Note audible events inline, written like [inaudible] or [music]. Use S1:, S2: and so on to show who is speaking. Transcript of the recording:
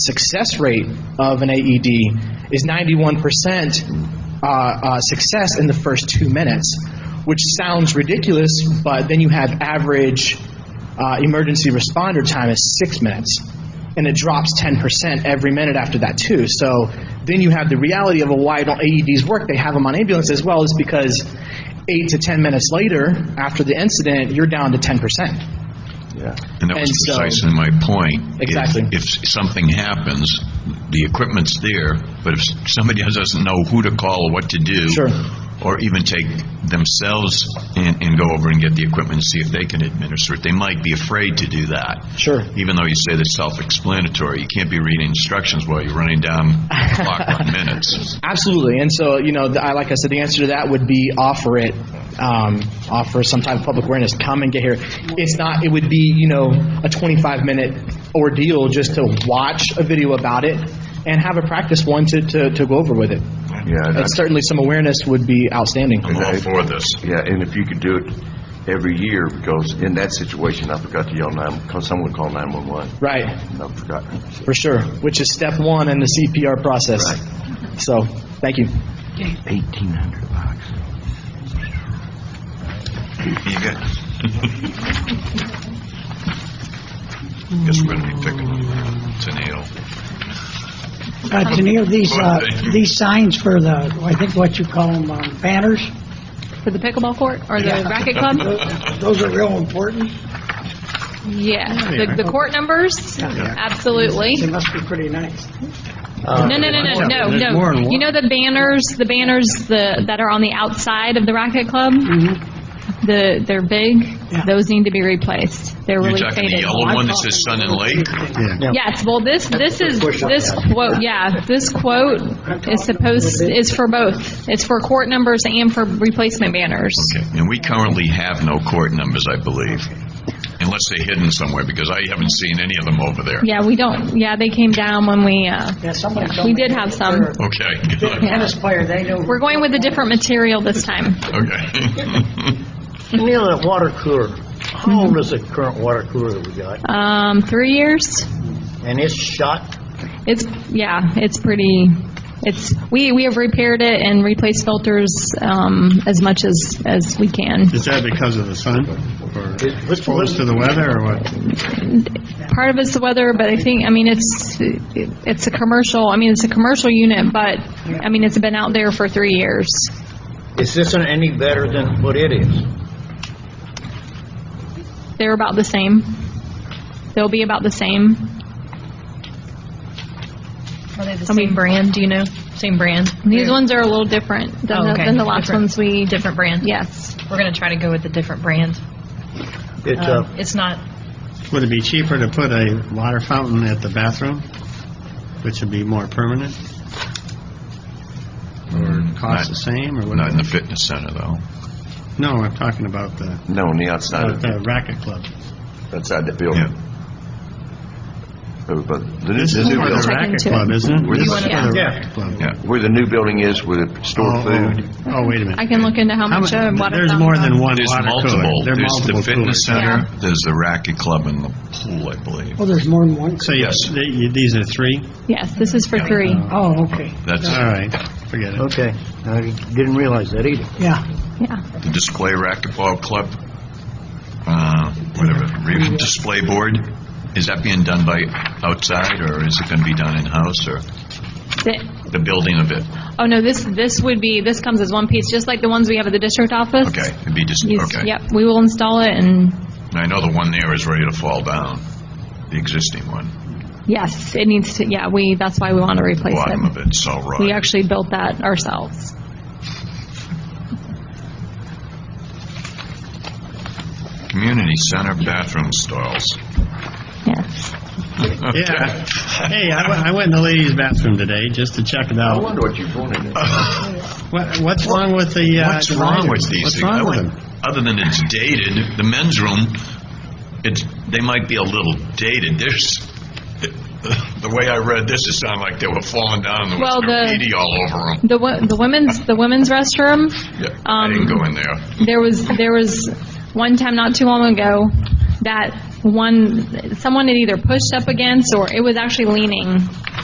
S1: success rate of an AED is 91% uh, uh, success in the first two minutes, which sounds ridiculous, but then you have average uh, emergency responder time is six minutes, and it drops 10% every minute after that, too. So then you have the reality of well, why don't AEDs work? They have them on ambulances as well, is because eight to 10 minutes later, after the incident, you're down to 10%.
S2: And that was
S1: And so-
S2: precisely my point. If-
S1: Exactly.
S2: If something happens, the equipment's there, but if somebody [laughs] doesn't know who to call, or what to do,
S1: Sure.
S2: or even take themselves and, and go over and get the equipment and see if they can administer it, they might be afraid to do that.
S1: Sure.
S2: Even though you say they're self-explanatory, you can't be reading instructions while you're running down the
S1: [laughs]
S2: clock on minutes.
S1: Absolutely, and so you know, the, I, like I said, the answer to that would be offer it, um, offer some type of public awareness. Come and get here. It's not. It would be you know a 25 minute ordeal just to watch a video about it and have a practice one to, to, to go over with it.
S3: Yeah,
S1: And
S3: that's,
S1: certainly, some awareness would be outstanding.
S2: I'm all for this.
S3: yeah, and if you could do it every year, because in that situation, I forgot to yell nine, because someone called nine-one-one,
S1: Right,
S3: and I forgot.
S1: for sure. Which is step one in the CPR process. So, thank you.
S3: Eighteen hundred bucks.
S2: You got- Guess we're gonna be picking on Tenille.
S4: Uh, Janelle, these, uh,
S2: Well, thank you.
S4: these signs for the, I think what you call them, um, banners,
S5: For the pickleball court or the racket club?
S4: those are real important.
S5: Yeah, the, the court numbers, absolutely.
S4: They must be pretty nice.
S5: No, no, no, no, no, no. You know the banners, the banners the, that are on the outside of the racket club? The, they're big,
S4: Yeah.
S5: those need to be replaced. They're
S2: You're
S5: really
S2: talking the
S5: faded.
S2: yellow one that says Sun and Lake?
S5: Yes, well, this, this is, this quote, yeah, this quote is supposed, is for both. It's for court numbers and for replacement banners.
S2: Okay, And we currently have no court numbers, I believe, unless they're hidden somewhere, because I haven't seen any of them over there.
S5: Yeah, we don't, yeah, they came down when we, uh,
S4: Yeah, somebody told
S5: we
S4: me
S5: did
S4: they
S5: have
S4: were
S5: some.
S4: a
S5: [laughs]
S2: Okay, good,
S4: Tennis player, they know.
S5: We're going with a different material this time.
S2: okay. [laughs]
S6: Neil, that water cooler, how old is the current water cooler that we got?
S5: Um, three years.
S6: And it's shot,
S5: It's yeah, it's pretty. It's we we have repaired it and replaced filters um, as much as as we can.
S7: Is that because of the sun or
S6: what's the
S7: exposed to the weather or what?
S5: Part of it's the weather, but I think I mean it's it's a commercial. I mean it's a commercial unit, but I mean it's been out there for three years.
S6: is this any better than what it is?
S5: They're about the same. They'll be about the same.
S8: Are they the
S5: I mean-
S8: same brand? Do you know? Same brand?
S5: These
S8: We're-
S5: ones are a little different than,
S8: Oh,
S5: the,
S8: okay.
S5: than the last
S8: Different-
S5: ones we.
S8: Different brand?
S5: Yes.
S8: We're going to try to go with a different brand.
S6: It's,
S8: Um,
S6: uh,
S8: It's not,
S7: Would it be cheaper to put a water fountain at the bathroom, which would be more permanent? Or cost the same or
S2: Not in
S7: what?
S2: the fitness center, though.
S7: No, I'm talking about the,
S3: No, on the
S2: Uh,
S3: outside
S7: about
S3: of,
S7: the racket club.
S3: outside the
S2: Yeah.
S3: building. But- but the new,
S7: This is
S3: the new
S7: for the
S3: building,
S5: Check
S7: racket
S5: into it.
S7: club, isn't it?
S3: Where's
S7: This
S3: the
S7: is for
S8: one-
S7: the
S6: Yeah.
S7: racket club.
S2: Yeah.
S3: where the new building is, where they store
S7: Oh,
S3: food.
S7: Oh, oh, wait a minute.
S5: I can look into how
S7: How
S5: much uh, a
S7: mu-
S5: water
S7: There's
S5: fountain
S7: more than
S5: costs.
S7: one
S2: There's
S7: water
S2: multiple.
S7: cooler. There are
S2: There's the
S7: multiple
S2: fitness
S7: coolers.
S2: center, there's the racket club, and the pool, I believe.
S4: Oh, there's more than one?
S7: So you-
S2: Yes.
S7: th- you- these are three?
S5: Yes, this is for three.
S4: Oh, okay,
S2: That's
S7: All right, forget it.
S6: okay, I didn't realize that either.
S4: yeah.
S5: Yeah.
S2: the display racquetball club, uh, whatever, re- display board, is that being done by outside, or is it going to be done in-house, or
S5: The-
S2: the building of it?
S5: Oh, no, this, this would be, this comes as one piece, just like the ones we have at the district office.
S2: Okay, it'd be just,
S5: Yes,
S2: okay.
S5: Yep, we will install it and,
S2: And I know the one there is ready to fall down, the existing one,
S5: yes, it needs to, yeah, we, that's why we want to replace
S2: bottom of
S5: it.
S2: it's all
S5: We
S2: rotten.
S5: actually built that ourselves.
S2: Community center bathroom stalls.
S5: Yes.
S7: Yeah. Hey, I went, I went in the ladies' bathroom today just to check it
S3: I
S7: out.
S3: wonder what you put in there.
S7: What, what's wrong with the? Uh,
S2: What's wrong with
S7: dividers?
S2: these
S7: What's
S2: things?
S7: wrong
S2: I
S7: with
S2: would-
S7: them?
S2: Other than it's dated, the men's room, it's, they might be a little dated. There's, the way I read this, it sounded like they were falling down, there was
S5: Well, the-
S2: graffiti all over them.
S5: The, wo- the women's, the women's restroom,
S2: I
S5: um,
S2: didn't go in there.
S5: there was, there was one time not too long ago that one, someone had either pushed up against, or it was actually leaning